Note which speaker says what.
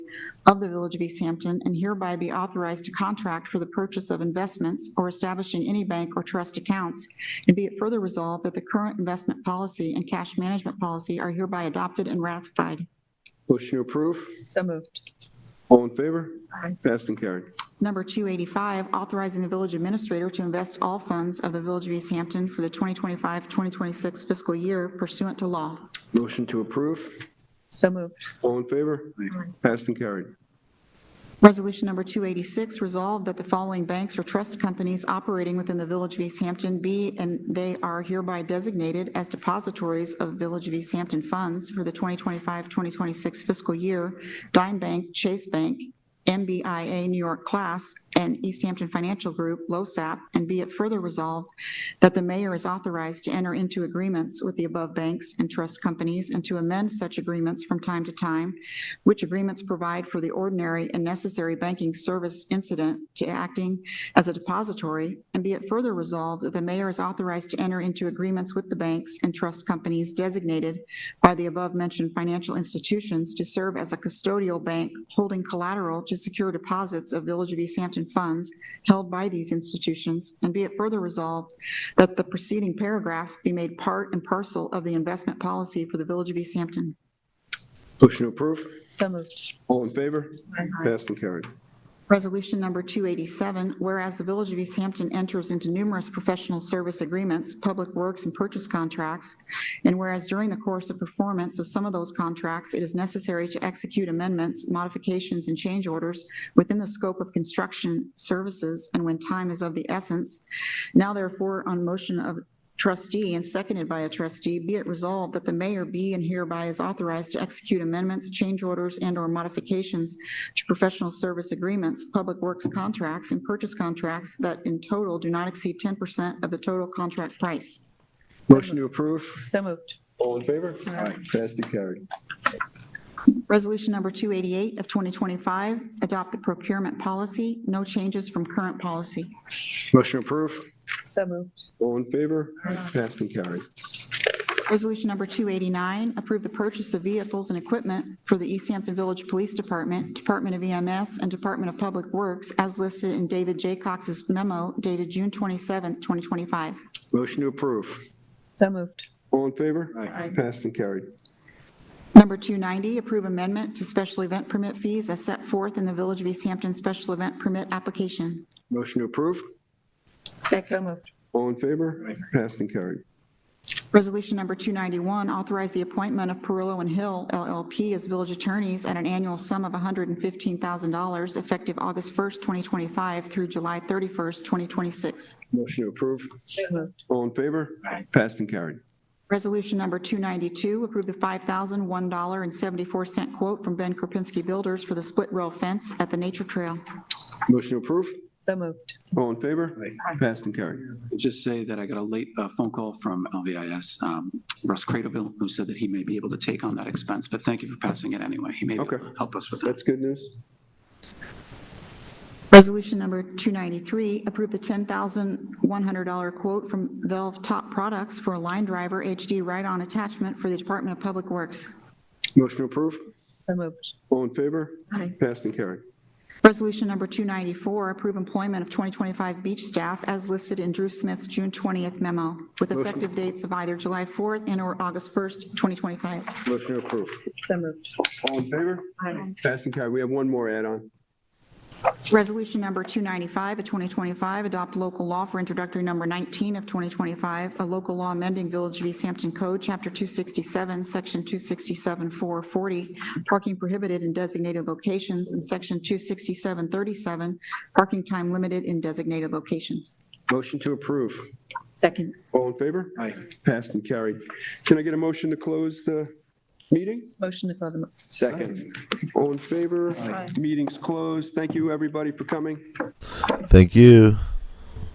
Speaker 1: of the Village of East Hampton and hereby be authorized to contract for the purchase of investments or establishing any bank or trust accounts. And be it further resolved that the current investment policy and cash management policy are hereby adopted and ratified.
Speaker 2: Motion to approve.
Speaker 3: So moved.
Speaker 2: All in favor?
Speaker 3: Aye.
Speaker 2: Passed and carried.
Speaker 1: Number 285, authorizing the village administrator to invest all funds of the Village of East Hampton for the 2025-2026 fiscal year pursuant to law.
Speaker 2: Motion to approve.
Speaker 3: So moved.
Speaker 2: All in favor? Passed and carried.
Speaker 1: Resolution number 286, resolved that the following banks or trust companies operating within the Village of East Hampton be and they are hereby designated as depositories of Village of East Hampton funds for the 2025-2026 fiscal year, Dime Bank, Chase Bank, MBIA New York Class, and East Hampton Financial Group, LoSAP, and be it further resolved that the mayor is authorized to enter into agreements with the above banks and trust companies and to amend such agreements from time to time, which agreements provide for the ordinary and necessary banking service incident to acting as a depository, and be it further resolved that the mayor is authorized to enter into agreements with the banks and trust companies designated by the above-mentioned financial institutions to serve as a custodial bank holding collateral to secure deposits of Village of East Hampton funds held by these institutions, and be it further resolved that the preceding paragraphs be made part and parcel of the investment policy for the Village of East Hampton.
Speaker 2: Motion to approve.
Speaker 3: So moved.
Speaker 2: All in favor? Passed and carried.
Speaker 1: Resolution number 287, whereas the Village of East Hampton enters into numerous professional service agreements, public works, and purchase contracts, and whereas during the course of performance of some of those contracts, it is necessary to execute amendments, modifications, and change orders within the scope of construction services and when time is of the essence, now therefore on motion of trustee and seconded by a trustee, be it resolved that the mayor be and hereby is authorized to execute amendments, change orders, and/or modifications to professional service agreements, public works contracts, and purchase contracts that in total do not exceed 10% of the total contract price.
Speaker 2: Motion to approve.
Speaker 3: So moved.
Speaker 2: All in favor? Passed and carried.
Speaker 1: Resolution number 288 of 2025, adopt the procurement policy, no changes from current policy.
Speaker 2: Motion to approve.
Speaker 3: So moved.
Speaker 2: All in favor? Passed and carried.
Speaker 1: Resolution number 289, approve the purchase of vehicles and equipment for the East Hampton Village Police Department, Department of EMS, and Department of Public Works as listed in David J. Cox's memo dated June 27, 2025.
Speaker 2: Motion to approve.
Speaker 3: So moved.
Speaker 2: All in favor? Passed and carried.
Speaker 1: Number 290, approve amendment to special event permit fees as set forth in the Village of East Hampton Special Event Permit Application.
Speaker 2: Motion to approve.
Speaker 3: So moved.
Speaker 2: All in favor? Passed and carried.
Speaker 1: Resolution number 291, authorize the appointment of Perillo and Hill LLP as village attorneys at an annual sum of $115,000 effective August 1st, 2025 through July 31st, 2026.
Speaker 2: Motion to approve.
Speaker 3: So moved.
Speaker 2: All in favor? Passed and carried.
Speaker 1: Resolution number 292, approve the $5,001.74 quote from Ben Kropinski Builders for the split rail fence at the Nature Trail.
Speaker 2: Motion to approve.
Speaker 3: So moved.
Speaker 2: All in favor? Passed and carried.
Speaker 4: Just say that I got a late uh, phone call from LVIS, um, Russ Cradaville, who said that he may be able to take on that expense, but thank you for passing it anyway. He may be able
Speaker 2: Okay.
Speaker 4: to help us with that.
Speaker 2: That's good news.
Speaker 1: Resolution number 293, approve the $10,100 quote from Valve Top Products for a line driver HD ride-on attachment for the Department of Public Works.
Speaker 2: Motion to approve.
Speaker 3: So moved.
Speaker 2: All in favor?
Speaker 3: Aye.
Speaker 2: Passed and carried.
Speaker 1: Resolution number 294, approve employment of 2025 beach staff as listed in Drew Smith's June 20th memo with effective dates of either July 4th and/or August 1st, 2025.
Speaker 2: Motion to approve.
Speaker 3: So moved.
Speaker 2: All in favor?
Speaker 3: Aye.
Speaker 2: Passed and carried. We have one more add-on.
Speaker 1: Resolution number 295 of 2025, adopt local law for introductory number 19 of 2025, a local law amending Village of East Hampton Code, Chapter 267, Section 267-440, parking prohibited in designated locations, and Section 267-37, parking time limited in designated locations.
Speaker 2: Motion to approve.
Speaker 3: Second.
Speaker 2: All in favor? Aye. Passed and carried. Can I get a motion to close the meeting?
Speaker 3: Motion to close the, mo-
Speaker 2: Second. All in favor?
Speaker 3: Aye.
Speaker 2: Meeting's closed. Thank you, everybody, for coming.
Speaker 5: Thank you.